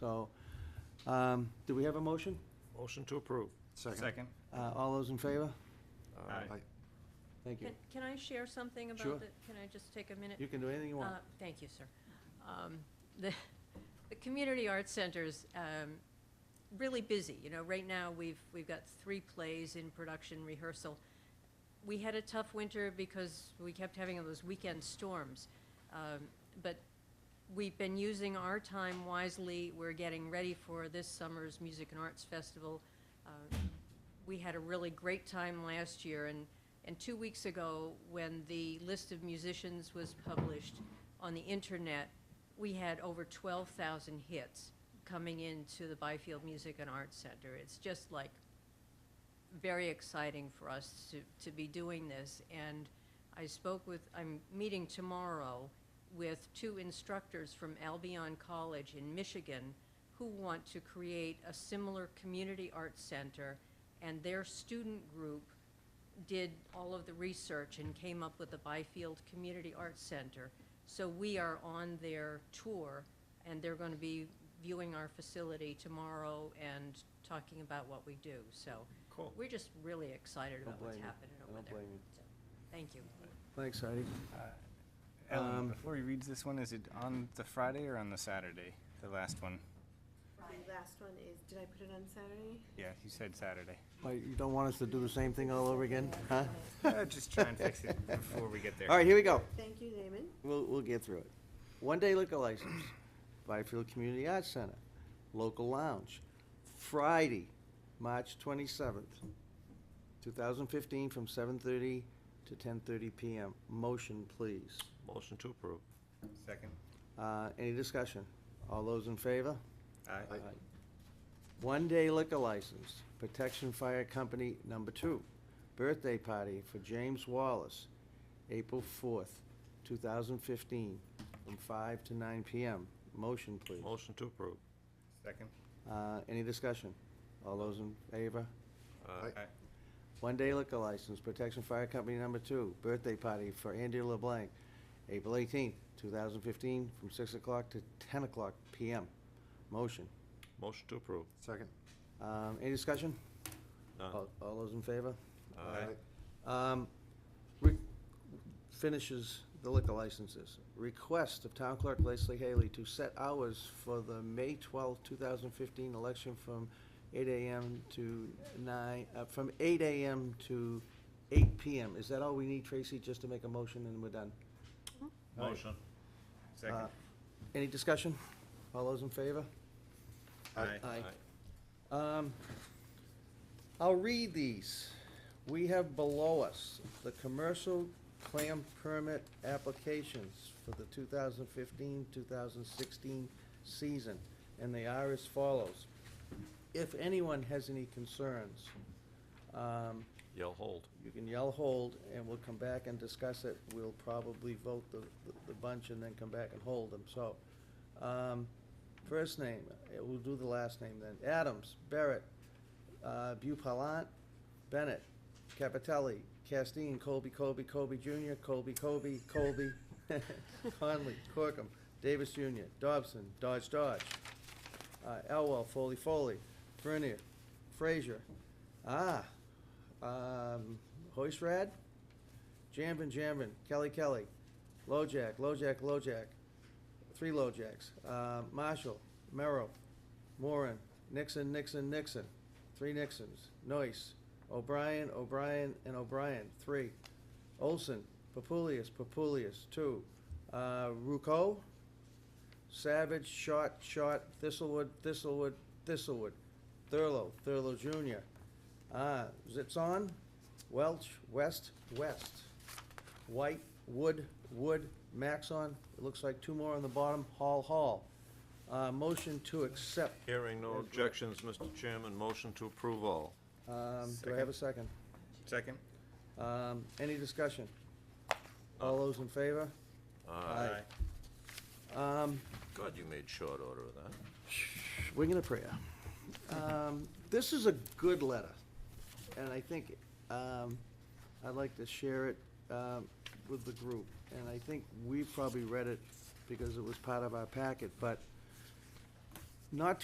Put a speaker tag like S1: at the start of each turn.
S1: So, um, do we have a motion?
S2: Motion to approve.
S3: Second.
S1: Uh, all those in favor?
S3: Aye.
S1: Thank you.
S4: Can- Can I share something about
S1: Sure.
S4: it? Can I just take a minute?
S1: You can do anything you want.
S4: Uh, Thank you, sir. Um, The, the community arts center's um, really busy, you know, right now, we've, we've got three plays in production rehearsal. We had a tough winter because we kept having those weekend storms, Um, but we've been using our time wisely. We're getting ready for this summer's Music and Arts Festival. Uh, we had a really great time last year, and, and two weeks ago, when the list of musicians was published on the internet, we had over 12,000 hits coming into the Byfield Music and Arts Center. It's just like very exciting for us to, to be doing this. And I spoke with, I'm meeting tomorrow with two instructors from Albion College in Michigan who want to create a similar community arts center. And their student group did all of the research and came up with the Byfield Community Arts Center. So we are on their tour, and they're going to be viewing our facility tomorrow and talking about what we do. So
S2: Cool.
S4: we're just really excited
S1: Don't
S4: about what's
S1: blame you.
S4: happening
S1: I
S4: over
S1: don't
S4: there.
S1: blame you.
S4: So, Thank you.
S1: Thanks, Heidi. Um,
S3: Ellen, before he reads this one, is it on the Friday or on the Saturday? The last one?
S5: The last one is, did I put it on Saturday?
S3: Yeah, you said Saturday.
S1: Why, You don't want us to do the same thing all over again, huh?
S3: Uh, Just try and fix it before we get there.
S1: All right, here we go.
S5: Thank you, Damon.
S1: We'll, we'll get through it. One-day liquor license, Byfield Community Arts Center, local lounge, Friday, March twenty-seventh, two thousand fifteen, from seven-thirty to ten-thirty PM. Motion, please.
S2: Uh, Motion to approve.
S3: Second.
S1: Uh, any discussion? All those in favor?
S3: Aye.
S1: One-day liquor license, Protection Fire Company Number Two, birthday party for James Wallace, April fourth, two thousand fifteen, from five to nine PM. Motion, please.
S2: Motion to approve.
S3: Second.
S1: Uh, any discussion? All those in favor?
S2: Aye.
S3: Aye.
S1: One-day liquor license, Protection Fire Company Number Two, birthday party for Andy LeBlanc, April eighteenth, two thousand fifteen, from six o'clock to ten o'clock PM. Motion.
S2: Motion to approve.
S6: Second.
S1: Um, any discussion?
S2: None.
S1: All all those in favor?
S2: Aye.
S1: Um, re- Finishes the liquor licenses. Request of Town Clerk Leslie Haley to set hours for the May twelfth, two thousand fifteen election from eight AM to nine, uh, from eight AM to eight PM. Is that all we need, Tracy, just to make a motion and we're done?
S2: Mm-hmm.
S3: Motion.
S1: Uh,
S3: Second.
S1: Any discussion? All those in favor?
S3: Aye.
S2: uh,
S1: Um, I'll read these. We have below us the commercial clam permit applications for the 2015-2016 season, and they are as follows. If anyone has any concerns, um,
S2: Yell hold.
S1: you can yell hold, and we'll come back and discuss it. We'll probably vote the, the bunch and then come back and hold them, so. um, First name, eh, we'll do the last name then. Adams, Barrett, uh, Bupalat, Bennett, Capitelli, Castine, Colby, Colby, Colby Junior, Colby, Colby, Colby, Conley, Corkum, Davis Junior, Dobson, Dodge, Dodge, uh, Elwell, Foley, Foley, Vernier, Frazier, ah, um, Hoistrad, Jambin, Jambin, Kelly, Kelly, LoJack, LoJack, LoJack, three LoJacks, uh, Marshall, Merrill, Moran, Nixon, Nixon, Nixon, three Nixons, Noyce, O'Brien, O'Brien, and O'Brien, three, Olson, Papulius, Papulius, two, uh, Rucco, Savage, Shot, Shot, Thistlewood, Thistlewood, Thistlewood, Thurlow, Thurlow Junior, Ah, Zitzon, Welch, West, West, White, Wood, Wood, Maxon, it looks like two more on the bottom, Hall, Hall. Uh, motion to accept,
S2: Hearing no
S1: Yes, right.
S2: objections, Mr. Chairman, motion to approve all.
S1: um, do I have a second?
S3: Second.
S1: Um, any discussion? All those in favor? Aye. Um,
S2: Uh, God, you made short order of that.
S1: wing and a prayer. Um, this is a good letter, and I think, um, I'd like to share it, um, with the group. And I think we probably read it because it was part of our packet, but not